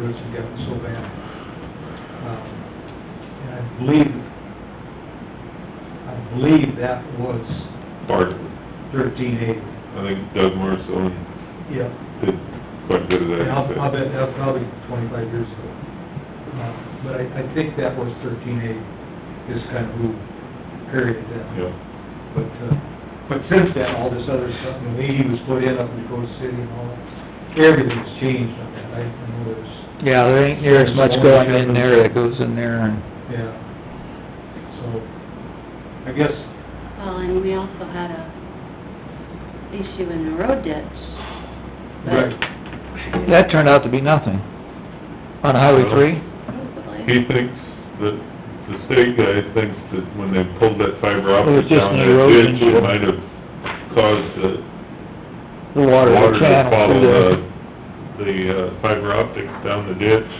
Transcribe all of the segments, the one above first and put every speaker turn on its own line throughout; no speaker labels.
roads have gotten so bad. Um, And I believe, I believe that was
Barton,
thirteen eighty.
I think Doug Marson
Yeah.
did quite a bit of that.
And I'll,
but-
I'll bet, that was probably twenty-five years ago. Uh, But I, I think that was thirteen eighty, is kind of who carried it down.
Yeah,
But, uh, but since then, all this other stuff, you know, eighty was put in up in Dakota City and all that, everything's changed on that, I I know there's,
Yeah, there ain't near as much going in there that goes in there and...
yeah. So, I guess,
Well, and we also had a issue in the road ditch. but
right,
That turned out to be nothing. On Highway three?
he
Probably.
thinks that, the state guy thinks that when they pulled that fiber
It was
optic
just
down
an
that
erosion
ditch, it
shield.
might have caused the
The water
water to
channel
follow
through
the,
there.
the uh, fiber optics down the ditch.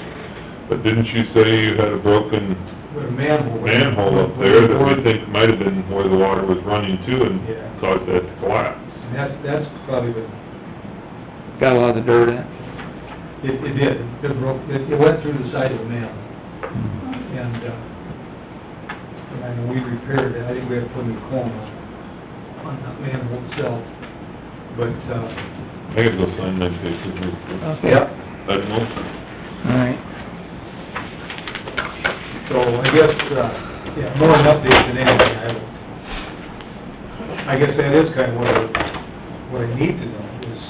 But didn't you say you had a broken
with a manhole.
manhole up there that we think might have been where the water was running to
Yeah.
and caused that to collapse?
And that's, that's probably been
Got a lot of dirt in it.
It, it did, it broke, it, it went through the side of the mill, and, uh, and I know we repaired it, I think we had to put a new cone on, on the manhole itself, but, uh.
I gotta go sign my papers.
Okay.
That motion.
All right.
So I guess, uh, yeah, more an update than anything, I, would- I guess that is kind of what I, what I need to know, is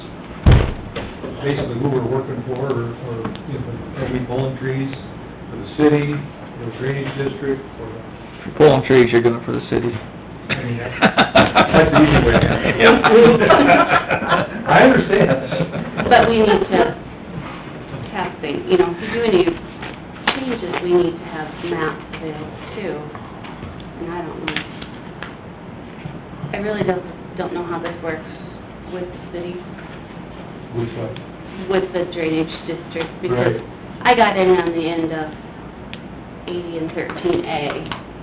basically who we're working for, or, or, you know, are we pulling trees for the city, the drainage district, or
If you're pulling trees, you're doing it for the city.
I mean, That's the easy way. I understand.
But we need to have things, you know, if you do any changes, we need to have maps available too. And I don't know. I really don't, don't know how this works with the city.
Which one?
with the drainage district,
Right.
because I got in on the end of eighty and thirteen A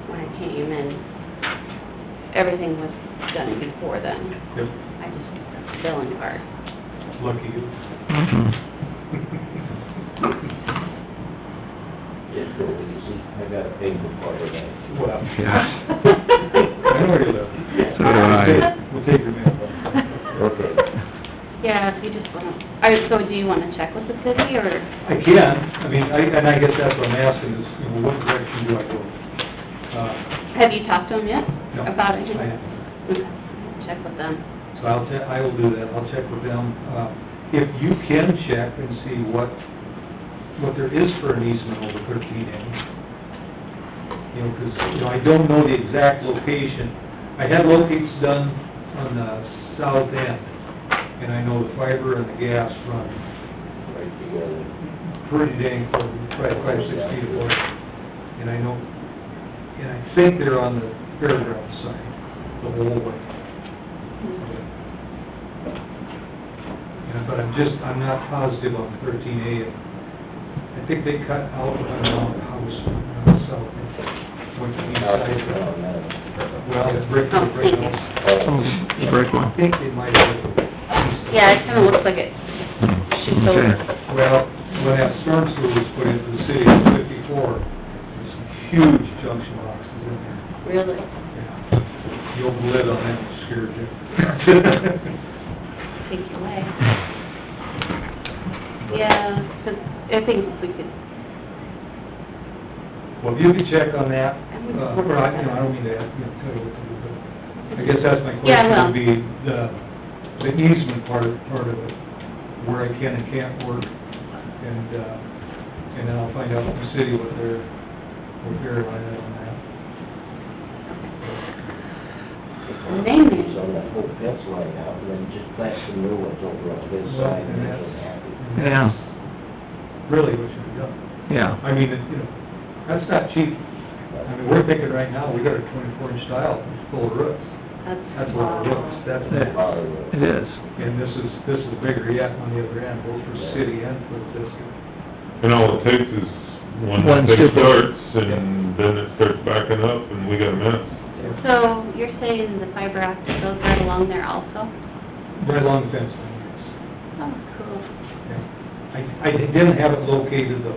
when I came, and everything was done before then.
Yep,
I just got the billing card.
lucky you.
Mhm.
It's so easy, I got a paper part of that.
Well,
Yeah.
I know where you live.
So do I.
We'll take your mail.
Okay.
Yeah, if you just wanna, all right, so do you wanna check with the city, or,
I can, I mean, I, and I guess that's what I'm asking is, you know, what direction do I go? Uh,
have you talked to them yet?
no,
About it?
I haven't.
Okay, Check with them.
So I'll, te- I will do that, I'll check with them. Uh, If you can check and see what, what there is for an easement over thirteen A. You know, 'cause, you know, I don't know the exact location. I had locates done on the south end, and I know the fiber and the gas run
Right together.
pretty dang, close, quite, quite six feet apart. And I know, and I think they're on the fairground side, the whole way. Yeah, but I'm just, I'm not positive on thirteen A. I think they cut out around the house uh, on the south, end, went to the east
How's it
side.
going now?
Well, the brick, the brick house.
Oh,
The brick one.
I think they might have.
Yeah, it kinda looks like it shoots over.
Okay.
Well, when that storm sewer was put into the city in fifty-four, there's some huge junction boxes in there.
Really?
Yeah. The old lid on that scared you.
take it away. Yeah, 'cause I think we could,
Well, if you could check on that,
would-
uh, or I, you know, I don't mean to, ask, you know, tell you what to do, but I guess that's my
Yeah,
question,
I will.
would be the, the easement part, of- part of it, where I can and can't work, and, uh, and then I'll find out from the city what their, what their line is on that.
They may.
So that whole fence line out, and then just plant some new ones over on this
Well,
side,
and
and make
that's-
them happy.
and
Yeah.
that's Really what should be done.
Yeah.
I mean, it- you know, that's not cheap. I mean, we're thinking right now, we got a twenty-four inch tile full of roofs. That's
that's
a lot of roofs, that's,
Lot of them.
It is.
and this is, this is bigger yet on the other end, both for city and for the district.
And all it takes is one
One
thing
super-
starts, and then it starts backing up, and we got a mess.
So you're saying the fiber optic goes right along there also?
Right along the fence line, yes.
Oh, cool.
Yeah. I, I didn't have it located though.